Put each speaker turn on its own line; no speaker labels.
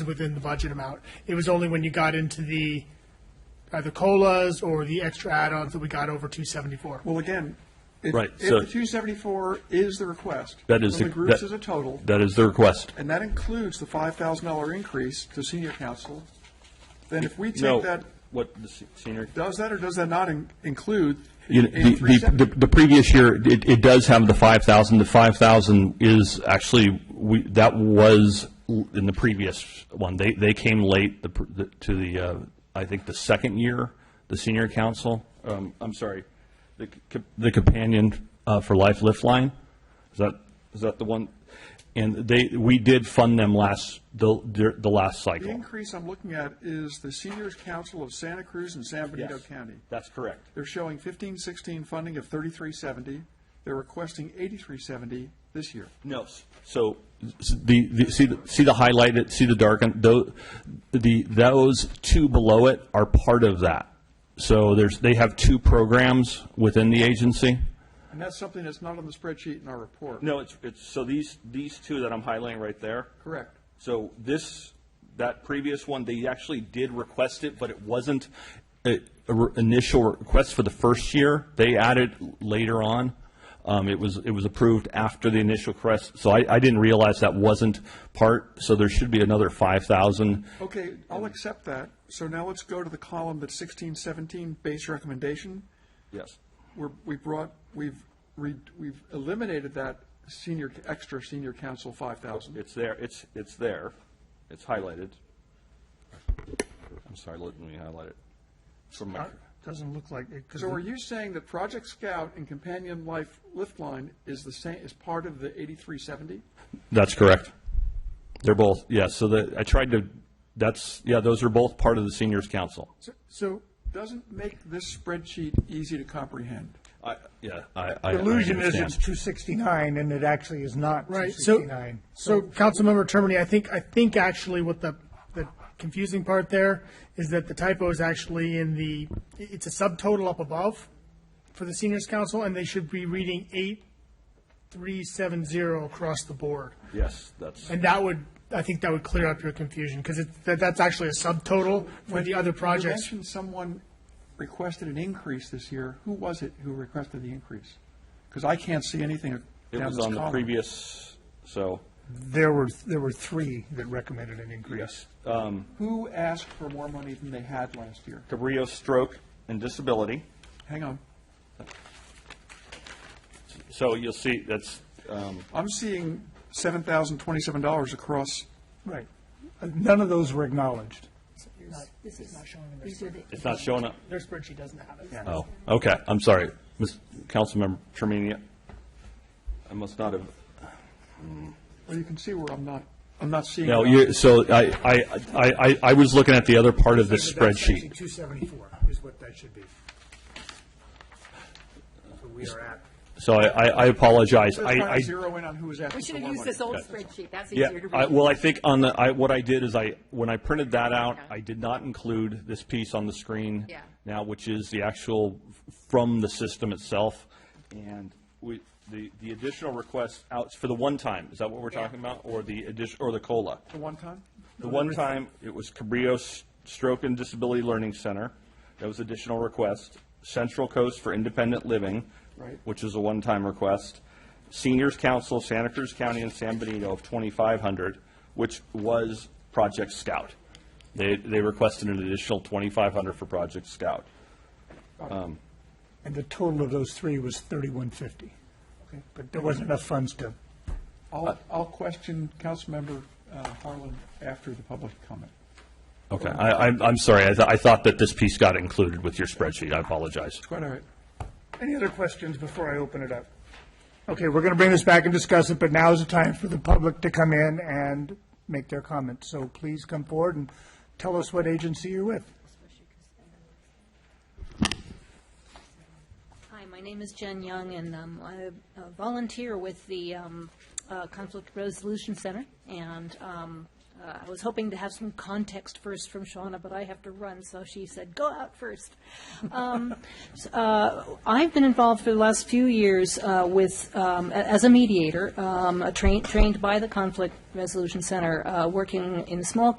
is within the budget amount. It was only when you got into the, either COLAs or the extra add-ons that we got over two seventy-four.
Well, again, if,
Right,
if
so-
the two seventy-four is the request.
That is
From
the-
the groups
that-
as a total,
That is the request.
and that includes the five thousand dollar increase to senior council, then if we
No,
take that,
What, the se- senior?
does that or does that not in- include
You know,
the
The,
eighty-three
the- the,
seventy?
the previous year, it, it does have the five thousand, the five thousand is actually, we, that was l- in the previous one, they, they came late the pr- the- to the, uh, I think, the second year, the senior council, um, I'm sorry, the, c- the companion, uh, for Life Lift Line, is that, is that the one? And they, we did fund them last, the, the last
The
cycle.
increase I'm looking at is the seniors council of Santa Cruz and San Benito
Yes.
County.
That's correct.
They're showing fifteen sixteen funding of thirty-three seventy. They're requesting eighty-three seventy this year.
No, s- so s- the, the, see, the- see the highlighted, see the darkened, tho- the, those two below it are part of that. So there's, they have two programs within the agency.
And that's something that's not on the spreadsheet in our report.
No, it's, it's, so these, these two that I'm highlighting right there.
Correct.
So this, that previous one, they actually did request it, but it wasn't a a re- initial request for the first year. They added later on. Um, It was, it was approved after the initial request, so I, I didn't realize that wasn't part, so there should be another 5,000.
Okay, I'll accept that. So now let's go to the column that's sixteen seventeen, base recommendation.
Yes.
We're, we brought, we've, re- we've eliminated that senior, extra senior council five thousand.
It's there, it's, it's there, it's highlighted. I'm sorry, let me highlight it. From my,
Doesn't look like it, because
So are you saying that Project Scout and Companion Life Lift Line is the same, is part of the eighty-three seventy?
That's correct. They're both, yeah, so the, I tried to, that's, yeah, those are both part of the seniors council.
So doesn't make this spreadsheet easy to comprehend.
I, yeah, I, I I
illusion is it's
understand.
269, and it actually is not
Right, so,
269.
so Councilmember Termini, I think, I think actually what the, the confusing part there is that the typo is actually in the, it's a subtotal up above for the seniors council, and they should be reading eight, three, seven, zero across the board.
Yes, that's.
And that would, I think that would clear up your confusion, because it's, that, that's actually a subtotal for the other
You
projects.
mentioned someone requested an increase this year. Who was it who requested the increase? Because I can't see anything down this
It was on the
column.
previous, so,
There were, there were three that recommended an increase.
Who asked for more money than they had last year?
Cabrillo stroke and disability.
Hang on.
So you'll see, that's, um,
I'm seeing seven thousand twenty-seven dollars across,
Right. Uh, None of those were acknowledged.
This is, these are the.
it's not showing up.
Their spreadsheet doesn't have it.
Oh, okay, I'm sorry. Ms. Councilmember Tremenia, I must not have
well, you can see where I'm not, I'm not seeing.
No,
it.
you, so I, I, I, I- I was looking at the other part of this
That's actually
spreadsheet.
274 is what that should be. So we are at.
So I, I I apologize.
Just
I,
trying
I,
to zero in on who was asking
We
for
should have
more
used
money.
this old spreadsheet, that's
yeah,
easier to
I-
read.
well, I think on the, I, what I did is I, when I printed that out, I did not include this piece on the screen
Yeah.
now, which is the actual, f- from the system itself. And we, the, the additional request out for the one time, is that what we're
Yeah.
talking about? Or the addition, or the COLA?
The one time?
The one time, it was Cabrillo's Stroke and Disability Learning Center. That was additional request. Central Coast for Independent Living,
Right.
which is a one-time request. Seniors Council, Santa Cruz County and San Benito of 2,500, which was Project Scout. They, they requested an additional 2,500 for Project Scout.
And the total of those three was 3150.
Okay.
But there wasn't enough funds to,
I'll, I'll question Councilmember uh, Harlan after the public comment.
Okay, I, I'm, I'm sorry, I, th- I thought that this piece got included with your spreadsheet, I apologize.
Quite all right.
any other questions before I open it up? Okay, we're going to bring this back and discuss it, but now is the time for the public to come in and make their comments. So please come forward and tell us what agency you're with.
Hi, my name is Jen Young, and um, I'm a volunteer with the um, uh, Conflict Resolution Center, and um, uh, I was hoping to have some context first from Shauna, but I have to run, so she said, "Go out first." Um, s- uh, I've been involved for the last few years uh, with, um, a- as a mediator, um, a train- trained by the Conflict Resolution Center, uh, working in small